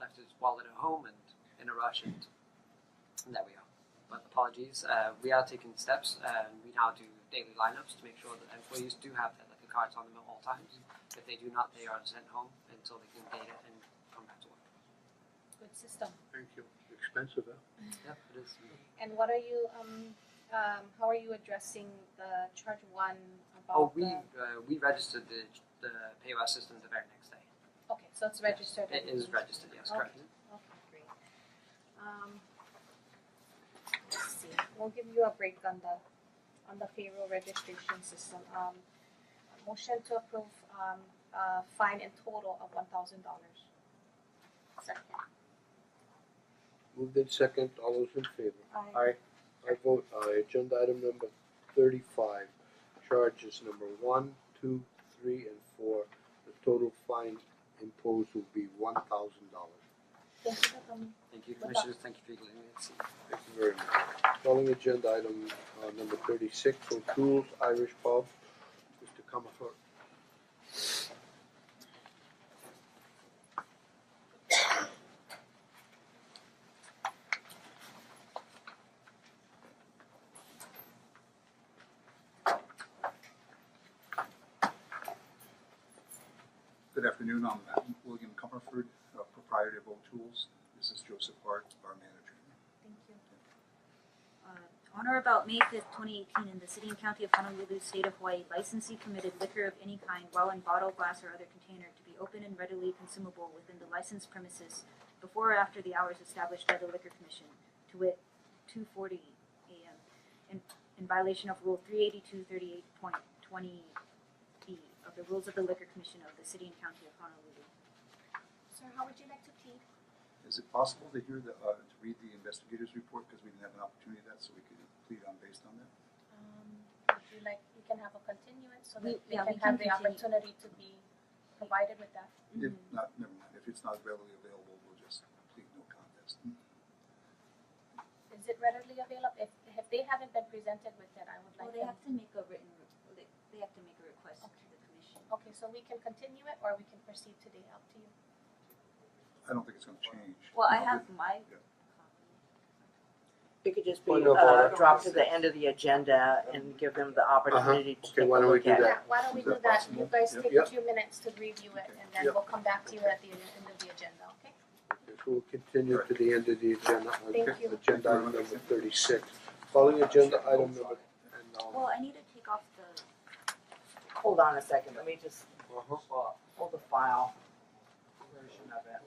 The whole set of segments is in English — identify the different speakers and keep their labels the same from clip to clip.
Speaker 1: left his wallet at home and in a rush, and, and there we are. But apologies, uh, we are taking steps, and we now do daily lineups to make sure that employees do have their liquor cards on them at all times. If they do not, they are sent home until they can date it and come back to work.
Speaker 2: Good system.
Speaker 3: Thank you. Expensive, huh?
Speaker 1: Yep, it is.
Speaker 2: And what are you, um, um, how are you addressing the charge one
Speaker 1: Oh,
Speaker 2: about
Speaker 1: we
Speaker 2: the?
Speaker 1: uh, we registered the the POS system the very next day.
Speaker 2: Okay, so it's registered.
Speaker 1: It
Speaker 2: and-
Speaker 1: is registered, yes, correct.
Speaker 2: Okay, great. Um, let's see, we'll give you a break on the, on the payroll registration system. Um, motion to approve, um, uh, fine in total of one thousand dollars. Second.
Speaker 3: Moved in second, all those in favor?
Speaker 2: Aye.
Speaker 3: I vote aye. Agenda item number thirty-five, charges number one, two, three, and four. The total fine imposed will be one thousand dollars.
Speaker 2: Thank you um, for coming.
Speaker 1: Thank you,
Speaker 2: Well done.
Speaker 1: commissioners. Thank you for letting me see.
Speaker 3: Thank you very much. Calling agenda item uh number thirty-six, O'Toole's Irish Pub, Mr. Comerford.
Speaker 4: Good afternoon, I'm William Cumberford, uh, proprietor of O'Toole's. This is Joseph Hart, our manager.
Speaker 2: Thank you.
Speaker 5: Uh, On or about May fifth, twenty eighteen, in the city and county of Honolulu, state of Hawaii, licensee permitted liquor of any kind while in bottle, glass, or other container to be open and readily consumable within the licensed premises before or after the hours established by the liquor commission, to wit, two forty AM, in, in violation of rule three eighty-two thirty-eight point twenty B of the rules of the liquor commission of the city and county of Honolulu.
Speaker 2: Sir, how would you like to plead?
Speaker 4: Is it possible to hear the, uh, to read the investigator's report, because we didn't have an opportunity of that, so we could plead on based on that?
Speaker 2: Um, would you like, you can have a continuance so
Speaker 5: We-
Speaker 2: that we
Speaker 5: yeah,
Speaker 2: can have
Speaker 5: we can
Speaker 2: the
Speaker 5: continue.
Speaker 2: opportunity to be provided with that.
Speaker 4: If
Speaker 5: Mm-hmm.
Speaker 4: not, never mind, if it's not readily available, we'll just plead no contest.
Speaker 2: Is it readily available? If, if they haven't been presented with it, I would
Speaker 5: Well,
Speaker 2: like
Speaker 5: they
Speaker 2: them.
Speaker 5: have to make a written, re- they, they have to make a request to the commission.
Speaker 2: Okay, so we can continue it or we can proceed today, up to you.
Speaker 4: I don't think it's gonna change.
Speaker 5: Well, I
Speaker 4: No,
Speaker 5: have my
Speaker 4: Yeah.
Speaker 5: copy.
Speaker 6: It could just be
Speaker 3: Point of
Speaker 6: uh
Speaker 3: order. Uh-huh.
Speaker 6: dropped to the end of the agenda and give them the opportunity to
Speaker 3: Okay,
Speaker 6: take a
Speaker 3: why don't we
Speaker 6: look
Speaker 3: do
Speaker 6: at it.
Speaker 3: that?
Speaker 2: Yeah, why don't we
Speaker 4: Is
Speaker 2: do
Speaker 4: that
Speaker 2: that? You
Speaker 4: possible?
Speaker 2: guys
Speaker 4: Yep.
Speaker 2: take a
Speaker 3: Yep.
Speaker 2: few minutes to review it and then
Speaker 3: Yep.
Speaker 2: we'll come back to you at the end of the agenda, okay?
Speaker 3: Okay, so we'll continue to the end of the agenda,
Speaker 2: Thank
Speaker 3: Okay,
Speaker 2: you.
Speaker 3: agenda item number thirty-six. Calling agenda item number, and, um,
Speaker 5: Well, I need to take off the,
Speaker 6: Hold on a second, let me just
Speaker 3: uh-huh.
Speaker 6: pull the file version of it.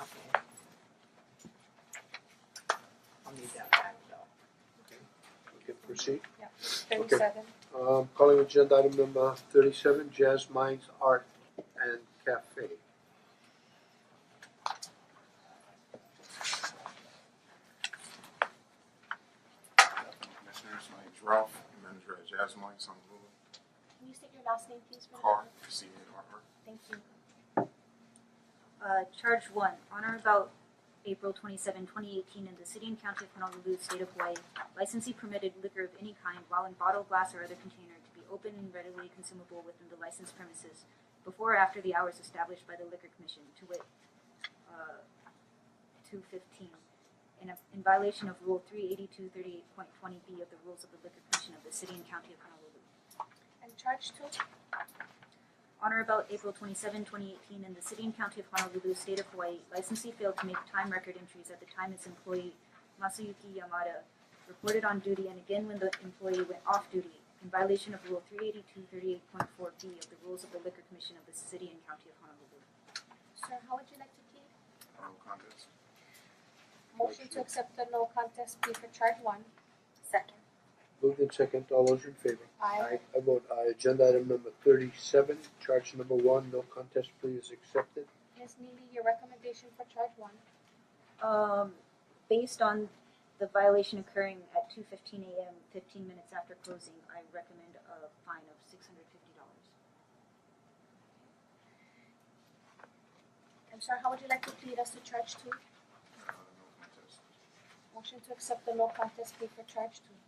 Speaker 6: Okay. I'll need that back though.
Speaker 3: we can proceed.
Speaker 2: Thirty-seven.
Speaker 3: Um, calling agenda item number thirty-seven, Jazz Minds Art and Cafe.
Speaker 7: Afternoon, Commissioners, my name's Ralph, manager at Jazz Minds on Lulu,
Speaker 2: Can you state your last name, please, for the
Speaker 7: Car,
Speaker 2: record?
Speaker 7: C A R R.
Speaker 2: Thank you.
Speaker 5: uh, charge one, on or about April 27, 2018, in the city and county of Honolulu, state of Hawaii, licensee permitted liquor of any kind while in bottle, glass, or other container to be open and readily consumable within the licensed premises before or after the hours established by the liquor commission, to wit, uh, 2:15, in a- in violation of Rule 38238.20B of the rules of the liquor commission of the city and county of Honolulu.
Speaker 2: And charge two?
Speaker 5: On or about April 27, 2018, in the city and county of Honolulu, state of Hawaii, licensee failed to make time record entries at the time its employee, Masayuki Yamada, reported on duty and again when the employee went off duty in violation of Rule 38238.4B of the Rules of the Liquor Commission of the City and County of Honolulu.
Speaker 2: Sir, how would you like to plead?
Speaker 7: No contest.
Speaker 2: Motion to accept the no contest plea for charge one. Second.
Speaker 3: Moved in second, all those in favor?
Speaker 2: Aye.
Speaker 3: I vote aye. Agenda item number thirty-seven, charge number one, no contest plea is accepted.
Speaker 2: Ms. Neely, your recommendation for charge one.
Speaker 5: Um, based on the violation occurring at 2:15 a.m., 15 minutes after closing, I recommend a fine of $650.
Speaker 2: And sir, how would you like to plead us to charge two?
Speaker 7: Uh, no contest.
Speaker 2: Motion to accept the no contest plea for charge two.